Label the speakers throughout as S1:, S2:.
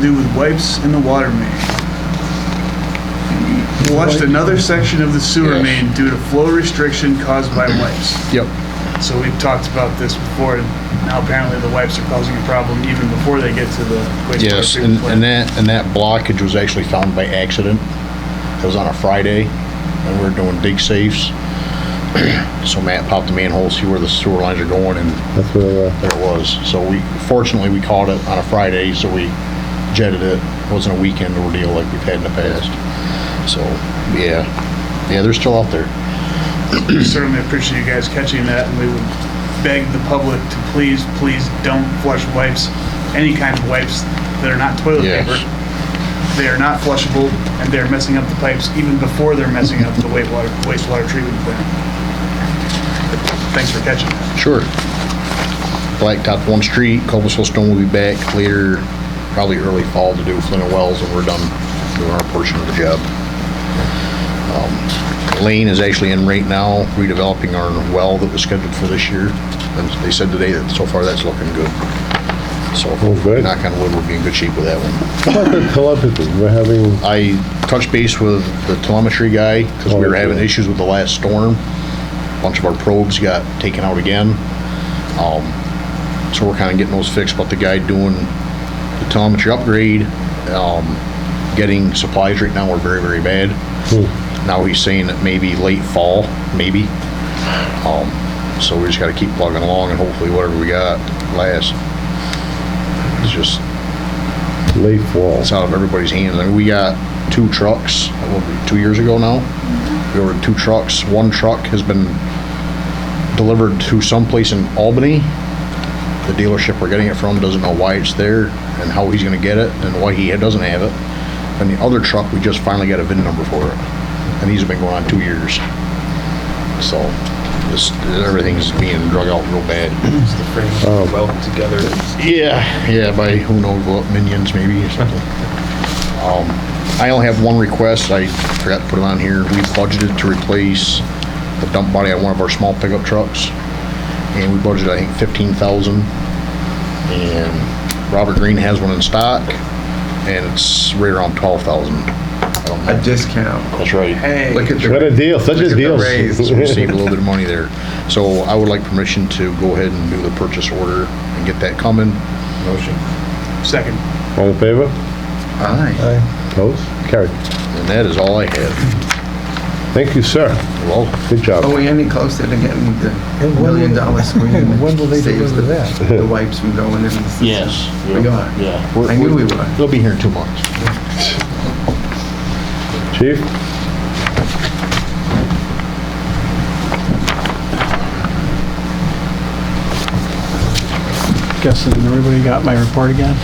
S1: do with wipes in the water main. Flushed another section of the sewer
S2: Yes.
S1: main due to flow restriction caused by wipes.
S2: Yep.
S1: So we've talked about this before, and now apparently the wipes are causing a problem even before they get to the wastewater
S2: Yes, and,
S1: treatment
S2: and
S1: plant.
S2: that, and that blockage was actually found by accident. It was on a Friday, and we were doing dig safes. So Matt popped the manhole, see where the sewer lines are going, and
S3: That's where, uh,
S2: there it was. So we, fortunately, we caught it on a Friday, so we jetted it. It wasn't a weekend ordeal like we've had in the past. So, yeah, yeah, they're still out there.
S1: We Certainly appreciate you guys catching that, and we would beg the public to please, please don't flush wipes, any kind of wipes that are not toilet
S2: Yes.
S1: paper. They are not flushable, and they're messing up the pipes even before they're messing up the wastewater, wastewater treatment plant. Thanks for catching that.
S2: Sure. Blacktop one street, Cobblestone Stone will be back later, probably early fall to do Flint and Wells, and we're done doing our portion of the job. Um, Lane is actually in right now, redeveloping our well that was scheduled for this year, and they said today that so far that's looking good. So,
S3: Oh, good.
S2: knock on wood, we'll be in good shape with that one.
S3: how about the telepathy, we're having,
S2: I touched base with the telemetry guy because we were having
S3: Okay.
S2: issues with the last storm. Bunch of our probes got taken out again. Um, so we're kind of getting those fixed, but the guy doing the telemetry upgrade, um, getting supplies right now are very, very bad.
S3: hmm,
S2: Now he's saying that maybe late fall, maybe. Um, so we just gotta keep plugging along and hopefully whatever we got lasts. It's just,
S3: late fall.
S2: it's out of everybody's hands. I mean, we got two trucks, that will be two years ago now. We ordered two trucks. One truck has been delivered to someplace in Albany. The dealership we're getting it from doesn't know why it's there and how he's gonna get it and why he doesn't have it. And the other truck, we just finally got a VIN number for it. And these have been going on two years. So, this, everything's being drug out real bad.
S4: It's the frame welded together.
S2: Yeah, yeah, by who knows what, minions maybe or something. Um, I only have one request, I forgot to put it on here. We budgeted to replace the dump body on one of our small pickup trucks. And we budgeted, I think, fifteen thousand. And Robert Green has one in stock and it's right around twelve thousand.
S4: A discount.
S2: That's right.
S1: Hey.
S4: Look at the.
S3: What a deal, such
S4: look at
S3: a
S4: the
S3: deal.
S4: raise.
S2: So we saved a little bit of money there. So I would like permission to go ahead and do the purchase order and get that coming.
S4: Motion.
S1: Second.
S3: All in favor?
S2: Aye.
S3: Opposed? Carried.
S2: And that is all I have.
S3: Thank you, sir.
S2: Well,
S3: Good job.
S4: Are we any closer to getting the
S5: And when
S4: million
S5: will-
S4: dollar screen?
S5: and when
S4: that
S5: will they
S4: saves
S5: deliver
S4: the-
S5: that?
S4: The wipes from going in the system.
S2: yes.
S4: We are.
S2: Yeah.
S4: I knew we were.
S2: They'll be here in two months.
S4: Oh.
S3: Chief?
S6: Guessing everybody got my report again?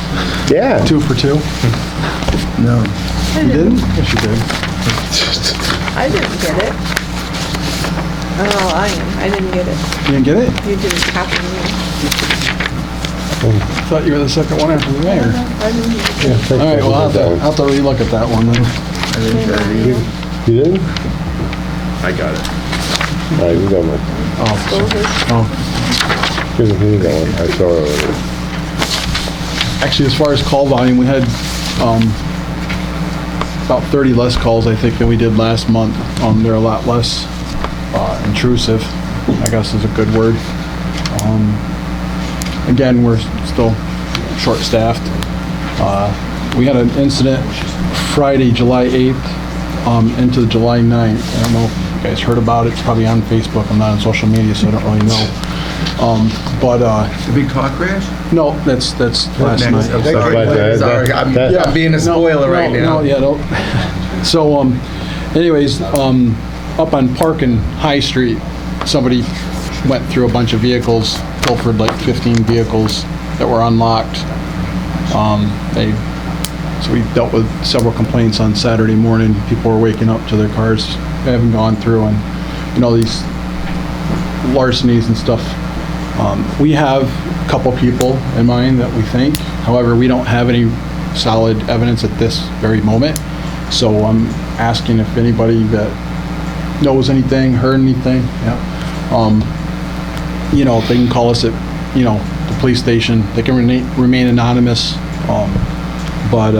S3: Yeah.
S6: Two for two?
S4: No.
S7: I
S6: You
S7: didn't,
S6: didn't? Yes, you did.
S7: I didn't get it. Oh, I am, I didn't get it.
S6: You didn't get it?
S7: You didn't copy me.
S6: Thought you were the second one after the mayor.
S7: I didn't get it.
S3: Yeah, thank
S6: All
S3: you
S6: right,
S3: for
S6: well, I'll have to,
S3: that
S6: I'll
S3: one.
S6: have to relook at that one then.
S4: I didn't get it either.
S3: You didn't? All
S4: I got it.
S3: right, we got one.
S6: Oh,
S7: Well, this-
S6: oh.
S3: Here's, here's that one. I saw it earlier.
S6: Actually, as far as call volume, we had, um, about 30 less calls, I think, than we did last month. Um, they're a lot less, uh, intrusive, I guess is a good word. Um, again, we're still short-staffed. Uh, we had an incident Friday, July 8th, um, into July 9th. I don't know if you guys heard about it. It's probably on Facebook. I'm not on social media, so I don't really know. Um, but, uh,
S4: The big car crash?
S6: no, that's, that's last
S4: Next.
S6: night.
S4: I'm sorry.
S3: Right there, that-
S4: Sorry, I'm
S3: that-
S4: I'm being a
S6: No,
S4: spoiler
S6: no,
S4: right now.
S6: No, yeah, don't. So, um, anyways, um, up on Park and High Street, somebody went through a bunch of vehicles, pilfered like 15 vehicles that were unlocked. Um, they, so we dealt with several complaints on Saturday morning. People were waking up to their cars, having gone through and, you know, these larcenies and stuff. Um, We have a couple people in mind that we think, however, we don't have any solid evidence at this very moment. So I'm asking if anybody that knows anything, heard anything, yeah, um, you know, if they can call us at, you know, the police station, they can remain remain anonymous. Um,
S2: But